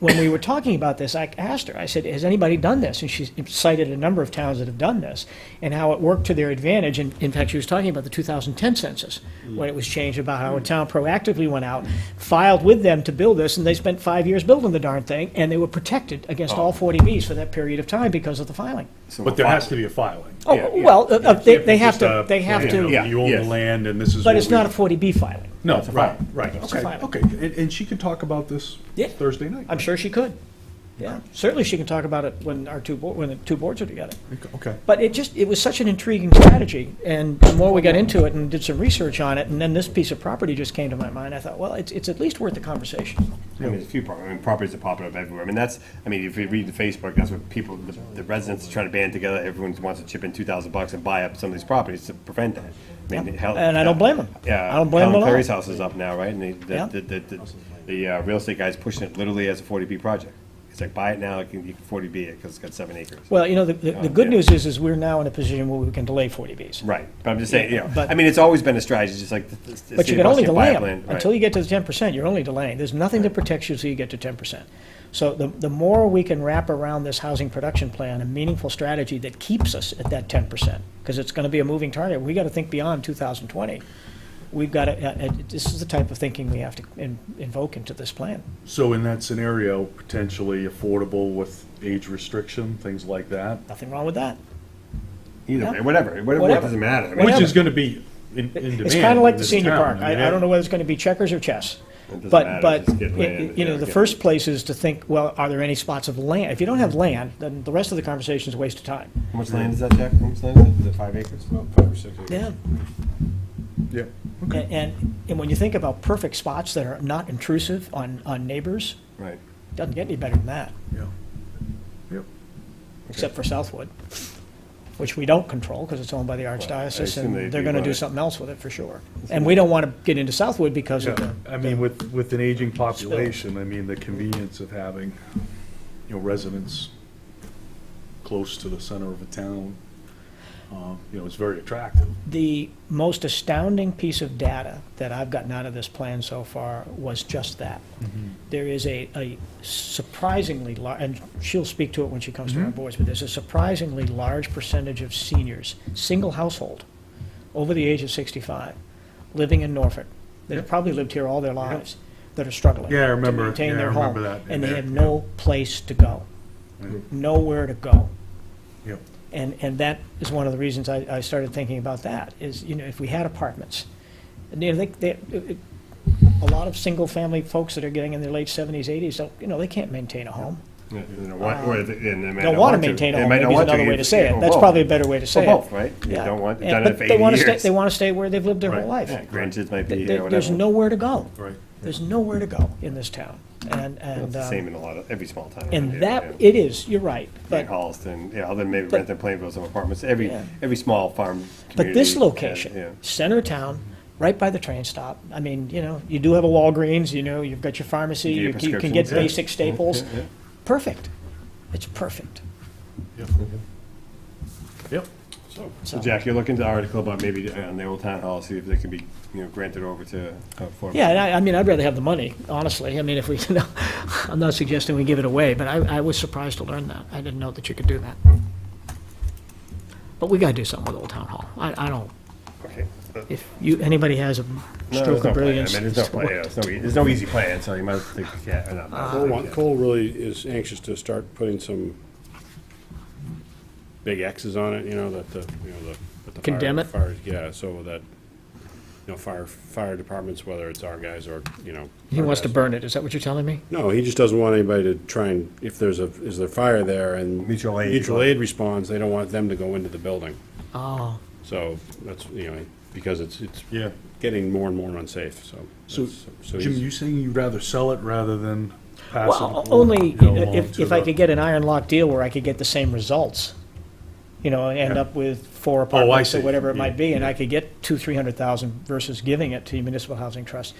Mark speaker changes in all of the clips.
Speaker 1: when we were talking about this, I asked her, I said, has anybody done this? And she cited a number of towns that have done this and how it worked to their advantage. And in fact, she was talking about the 2010 census when it was changed about how a town proactively went out, filed with them to build this, and they spent five years building the darn thing. And they were protected against all 40Bs for that period of time because of the filing.
Speaker 2: So
Speaker 3: But there has to be a filing.
Speaker 1: Oh, well, uh, uh, they, they
Speaker 3: It's
Speaker 1: have
Speaker 3: just
Speaker 1: to,
Speaker 3: a-
Speaker 1: they have
Speaker 3: you know,
Speaker 1: to,
Speaker 3: You own the
Speaker 2: Yes.
Speaker 3: land and this is.
Speaker 1: but
Speaker 3: what
Speaker 1: it's
Speaker 3: we-
Speaker 1: not a 40B filing.
Speaker 3: No,
Speaker 2: It's a
Speaker 3: right,
Speaker 2: filing.
Speaker 3: right.
Speaker 1: a
Speaker 3: Okay,
Speaker 1: filing.
Speaker 3: okay. And, and she can talk about this
Speaker 1: Yeah.
Speaker 3: Thursday night.
Speaker 1: I'm sure she could. Yeah, certainly she can talk about it when our two, bo- when the two boards are together.
Speaker 3: Okay.
Speaker 1: But it just, it was such an intriguing strategy, and the more we got into it and did some research on it, and then this piece of property just came to my mind, I thought, well, it's, it's at least worth the conversation.
Speaker 4: I mean, there's a few properties, I mean, properties are popping up everywhere. I mean, that's, I mean, if you read the Facebook, that's what people, the- the residents are trying to band together. Everyone wants to chip in two thousand bucks and buy up some of these properties to prevent that. I mean, hell- uh,
Speaker 1: And I don't blame 'em.
Speaker 4: Yeah.
Speaker 1: I don't blame 'em
Speaker 4: Helen
Speaker 1: at all.
Speaker 4: Clary's house is up now, right? And they-
Speaker 1: Yeah.
Speaker 4: the, the, the, the, the uh, real estate guy's pushing it literally as a forty B project. It's like, buy it now, you can forty B it, because it's got seven acres.
Speaker 1: Well, you know, the, the the good
Speaker 4: Yeah.
Speaker 1: news is, is we're now in a position where we can delay 40Bs.
Speaker 4: Right, but I'm just saying, you know,
Speaker 1: But-
Speaker 4: I mean, it's always been a strategy, just like. the- the
Speaker 1: But
Speaker 4: city
Speaker 1: you
Speaker 4: of
Speaker 1: can only
Speaker 4: Boston
Speaker 1: delay
Speaker 4: buy
Speaker 1: them.
Speaker 4: land, right.
Speaker 1: Until you get to the 10%, you're only delaying. There's nothing that protects you until you get to 10%. So the, the more we can wrap around this housing production plan, a meaningful strategy that keeps us at that 10%, because it's going to be a moving target. We got to think beyond 2020. We've got to, this is the type of thinking we have to in- invoke into this plan.
Speaker 3: So in that scenario, potentially affordable with age restriction, things like that,
Speaker 1: Nothing wrong with that.
Speaker 4: Either
Speaker 1: Yeah.
Speaker 4: way, whatever, whatever,
Speaker 1: Whatever.
Speaker 4: it doesn't matter. I mean,
Speaker 3: which
Speaker 1: Whatever.
Speaker 3: is gonna be in, in demand.
Speaker 1: It's kind of like
Speaker 3: in
Speaker 1: the
Speaker 3: this
Speaker 1: senior
Speaker 3: town.
Speaker 1: park.
Speaker 3: mean,
Speaker 1: I, I don't know whether it's going to be checkers or chess.
Speaker 4: doesn't
Speaker 1: But,
Speaker 4: matter,
Speaker 1: but,
Speaker 4: just get
Speaker 1: y- y-
Speaker 4: land,
Speaker 1: you know,
Speaker 4: yeah,
Speaker 1: the
Speaker 4: get-
Speaker 1: first place is to think, well, are there any spots of land? If you don't have land, then the rest of the conversation is a waste of time.
Speaker 4: How much land is that, Jack? How much land is it? Is it five acres?
Speaker 5: About five or six acres.
Speaker 1: Yeah.
Speaker 3: Yeah.
Speaker 1: And, and- and when you think about perfect spots that are not intrusive on, on neighbors,
Speaker 4: Right.
Speaker 1: doesn't get any better than that,
Speaker 3: Yeah. Yep.
Speaker 1: except for Southwood, which we don't control because it's owned by the Archdiocese
Speaker 4: assume
Speaker 1: and
Speaker 4: they'd
Speaker 1: they're
Speaker 4: be
Speaker 1: going to do
Speaker 4: right.
Speaker 1: something else with it for sure. And we don't want to get into Southwood because of
Speaker 3: Yeah,
Speaker 1: the.
Speaker 3: I mean, with, with an aging population, I mean, the convenience of having, you know, residents close to the center of a town, uh, you know, is very attractive.
Speaker 1: The most astounding piece of data that I've gotten out of this plan so far was just that. There is a, a surprisingly large, and she'll speak to it when she comes to our
Speaker 3: Mm-hmm.
Speaker 1: boards, but there's a surprisingly large percentage of seniors, single household, over the age of 65, living in Norfolk, that have probably lived here all their lives, that are struggling.
Speaker 3: Yeah, I remember-
Speaker 1: To maintain
Speaker 3: yeah, I
Speaker 1: their home.
Speaker 3: remember that in
Speaker 1: And they
Speaker 3: there,
Speaker 1: have
Speaker 3: yeah.
Speaker 1: no place to go, nowhere to go.
Speaker 3: Yep.
Speaker 1: And, and that is one of the reasons I, I started thinking about that, is, you know, if we had apartments, and, you know, they, they, it- it- a lot of single-family folks that are getting in their late seventies, eighties, don't, you know, they can't maintain a home.
Speaker 4: Yeah, they Don't want, or they- and they might
Speaker 1: Don't
Speaker 4: not
Speaker 1: Uh, wanna
Speaker 4: want to.
Speaker 1: maintain a
Speaker 4: They
Speaker 1: home,
Speaker 4: might
Speaker 1: maybe
Speaker 4: not
Speaker 1: is
Speaker 4: want
Speaker 1: another way to say
Speaker 4: or
Speaker 1: it. That's
Speaker 4: both.
Speaker 1: probably a better way to say it.
Speaker 4: Or both, right? You
Speaker 1: Yeah.
Speaker 4: don't want,
Speaker 1: And-
Speaker 4: done
Speaker 1: but
Speaker 4: it for
Speaker 1: they
Speaker 4: eighty
Speaker 1: wanna stay-
Speaker 4: years.
Speaker 1: They want to stay where they've lived their whole life.
Speaker 4: Yeah, Grandkids might be
Speaker 1: Th-
Speaker 4: here,
Speaker 1: th- There's
Speaker 4: whatever.
Speaker 1: nowhere to go.
Speaker 3: Right.
Speaker 1: There's nowhere to go in this town. And,
Speaker 4: It's
Speaker 1: and,
Speaker 4: the same
Speaker 1: um,
Speaker 4: in a lot of, every small town. around here,
Speaker 1: and that,
Speaker 4: yeah.
Speaker 1: it is, you're right.
Speaker 4: Like
Speaker 1: But,
Speaker 4: Holliston, yeah, other than maybe
Speaker 1: but-
Speaker 4: Rentham, Plainville, some apartments, every,
Speaker 1: Yeah.
Speaker 4: every small farm
Speaker 1: but this
Speaker 4: community has-
Speaker 1: location,
Speaker 4: yeah.
Speaker 1: center of town, right by the train stop, I mean, you know, you do have a Walgreens, you know, you've got your pharmacy,
Speaker 4: Get your
Speaker 1: you c- you can get
Speaker 4: prescriptions, yeah.
Speaker 1: basic staples.
Speaker 4: Yeah, yeah.
Speaker 1: Perfect. It's perfect.
Speaker 3: Yep. Yep.
Speaker 4: So Jack, you're looking to article about maybe uh, on the old town hall, see if they can be, you know, granted over to. uh, for-
Speaker 1: Yeah, and I, I mean, I'd rather have the money, honestly. I mean, if we, you know, I'm not suggesting we give it away, but I, I was surprised to learn that. I didn't know that you could do that. But we gotta do something with Old Town Hall. I, I don't,
Speaker 4: Okay.
Speaker 1: if you, anybody has a
Speaker 4: No,
Speaker 1: stroke
Speaker 4: there's no
Speaker 1: of
Speaker 4: plan.
Speaker 1: brilliance.
Speaker 4: I mean, there's no plan, yeah, there's no, e- there's no easy plan, so you might think, yeah, or not.
Speaker 5: Cole, wa- Cole really is anxious to start putting some big X's on it, you know, that the, you know, the. that the fire-
Speaker 1: Condemn it?
Speaker 5: fire- Yeah, so that, you know, fire, fire departments, whether it's our guys or, you know.
Speaker 1: He
Speaker 5: our
Speaker 1: wants to
Speaker 5: guys.
Speaker 1: burn it, is that what you're telling me?
Speaker 5: No, he just doesn't want anybody to try and, if there's a, is there fire there and.
Speaker 4: Mutual aid.
Speaker 5: Mutual aid responds, they don't want them to go into the building.
Speaker 1: Oh,
Speaker 5: So that's, you know, because it's, it's
Speaker 3: Yeah.
Speaker 5: getting more and more unsafe, so.
Speaker 3: So,
Speaker 5: that's-
Speaker 3: Jim,
Speaker 5: he's-
Speaker 3: you saying you'd rather sell it rather than pass it?
Speaker 1: well,
Speaker 3: along,
Speaker 1: only
Speaker 3: you know, along
Speaker 1: if,
Speaker 3: to
Speaker 1: if I
Speaker 3: the-
Speaker 1: could get an iron lock deal where I could get the same results. You know, and end up with four
Speaker 3: Oh, I
Speaker 1: apartments or
Speaker 3: see.
Speaker 1: whatever it
Speaker 3: Yeah,
Speaker 1: might be, and I could get two, three hundred thousand versus giving it to the municipal housing trust.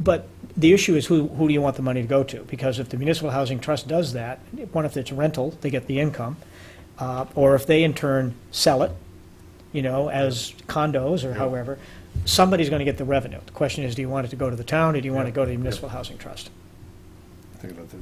Speaker 1: But the issue is who, who do you want the money to go to? Because if the municipal housing trust does that, one, if it's rental, they get the income. Uh, or if they in turn sell it, you know, as condos or however, somebody's gonna get the revenue. The question is, do you want it to go to the town or do you want it to go to the municipal housing trust?
Speaker 4: Think about the